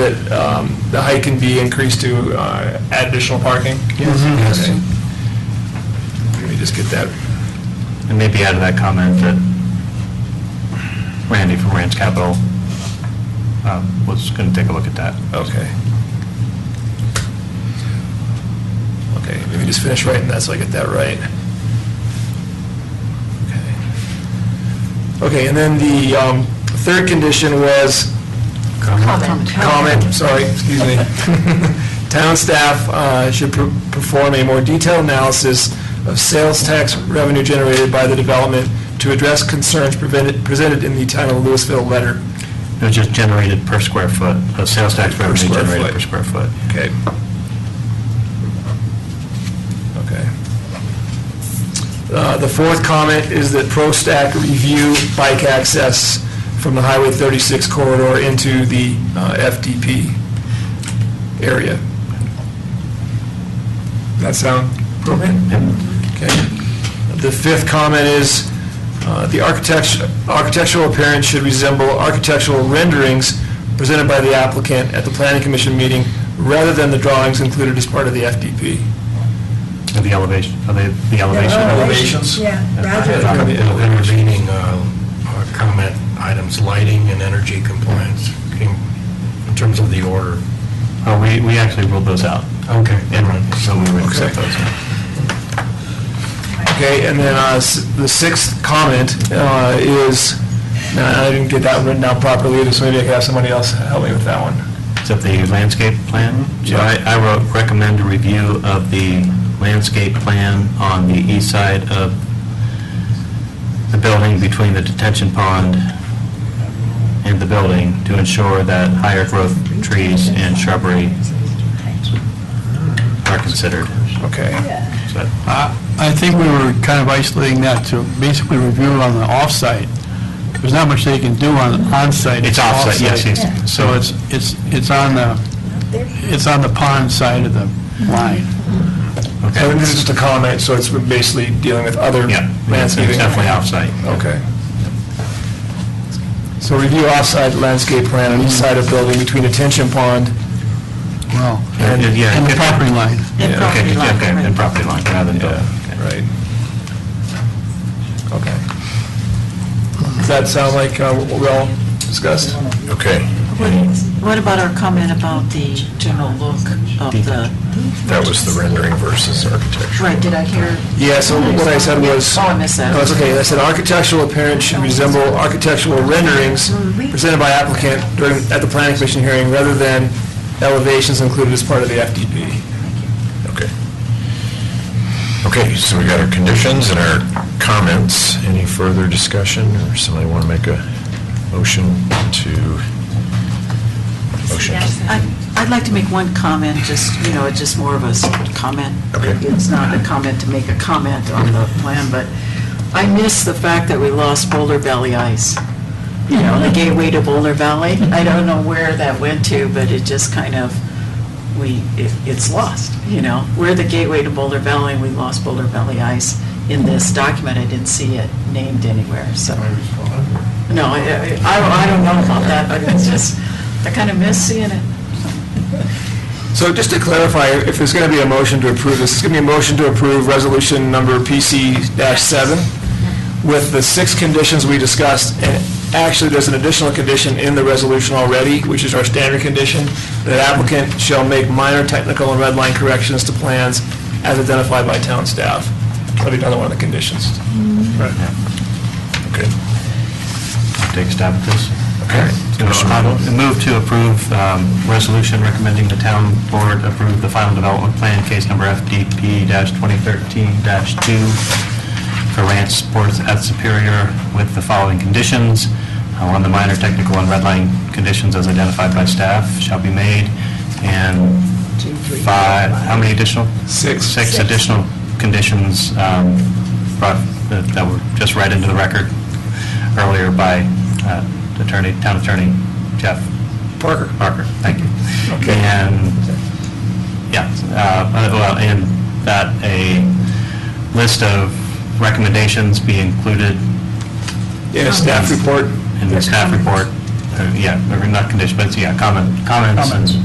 that um, the height can be increased to uh, add additional parking? Yes. Okay. Let me just get that. And maybe add to that comment that Randy from Rand's Capital uh, was going to take a look at that. Okay. Okay, let me just finish writing that so I get that right. Okay. Okay, and then the um, third condition was comment, sorry, excuse me. Town staff uh, should per- perform a more detailed analysis of sales tax revenue generated by the development to address concerns prevented- presented in the town of Louisville letter. It was just generated per square foot, uh, sales tax Per revenue square generated foot. per square foot. Okay. Okay. Uh, The fourth comment is that ProStack review bike access from the Highway 36 corridor into the uh, FDP area. That sound appropriate? Okay. The fifth comment is, uh, the architect- architectural appearance should resemble architectural renderings presented by the applicant at the planning commission meeting, rather than the drawings included as part of the FDP. And the elevation, are they, the elevation? Elevations? Yeah, Yeah. Roger. And the Intervening uh, uh, comment items, lighting and energy compliance, came in terms of the order. Oh, we, we actually ruled those out, Okay. and so we would accept those. Okay, and then uh, s- the sixth comment uh, is, no, I didn't get that written down properly, so maybe I could have somebody else help me with that one. Except the landscape plan? So Yeah. I, I wrote, recommend a review of the landscape plan on the east side of the building between the detention pond and the building to ensure that higher growth trees and shrubbery are considered. Okay. So that- I I think we were kind of isolating that to basically review it on the off-site. There's not much they can do on on-site. It's off-site, yes, yes. So it's, it's, it's on the, it's on the pond side of the line. So Okay. this is just a comment, so it's basically dealing with other Yeah, it's landscaping. definitely off-site. Okay. So review offsite landscape plan on east side of building between attention pond. Well, And, yeah. and the property line. Yeah, okay, property line, okay, right. And property line, rather than building. Right. Okay. Does that sound like uh, what we all discussed? Okay. What about our comment about the general look of the, That was the rendering versus architecture. right, did I hear? Yeah, so what I said was... Oh, I missed that. No, it's okay. I said architectural appearance should resemble architectural renderings presented by applicant during, at the planning commission hearing, rather than elevations included as part of the FDP. Okay. Okay, so we got our conditions and our comments. Any further discussion, or somebody want to make a motion to? Motion. I- I'd like to make one comment, just, you know, it's just more of a s- comment. Okay. It's not a comment to make a comment on the plan, but I miss the fact that we lost Boulder Valley Ice. You know, the gateway to Boulder Valley. I don't know where that went to, but it just kind of, we, it- it's lost, you know? We're the gateway to Boulder Valley, and we lost Boulder Valley Ice in this document. I didn't see it named anywhere, so. No, I, I- I don't- I don't know about that, but it's just, I kind of miss seeing it. So just to clarify, if there's going to be a motion to approve this, it's going to be a motion to approve resolution number PC-7 with the six conditions we discussed, and actually, there's an additional condition in the resolution already, which is our standard condition, that applicant shall make minor technical and red line corrections to plans as identified by town staff. That'll be another one of the conditions. Okay. Take a stab at this. Okay. So I Move to approve um, resolution recommending the town board approve the final development plan, case number FDP-2013-2 for Ranch Sports at Superior with the following conditions. Uh, One, the minor technical and redline conditions as identified by staff shall be made, and five, how many additional? Six. Six additional conditions um, brought, that that were just read into the record earlier by uh, Attorney, Town Attorney Jeff Parker? Parker. Thank you. Okay. And, yeah, uh, well, and that a list of recommendations be included Yeah, staff report? in the staff report uh, yeah, or not condition, but it's, yeah, common, common sense.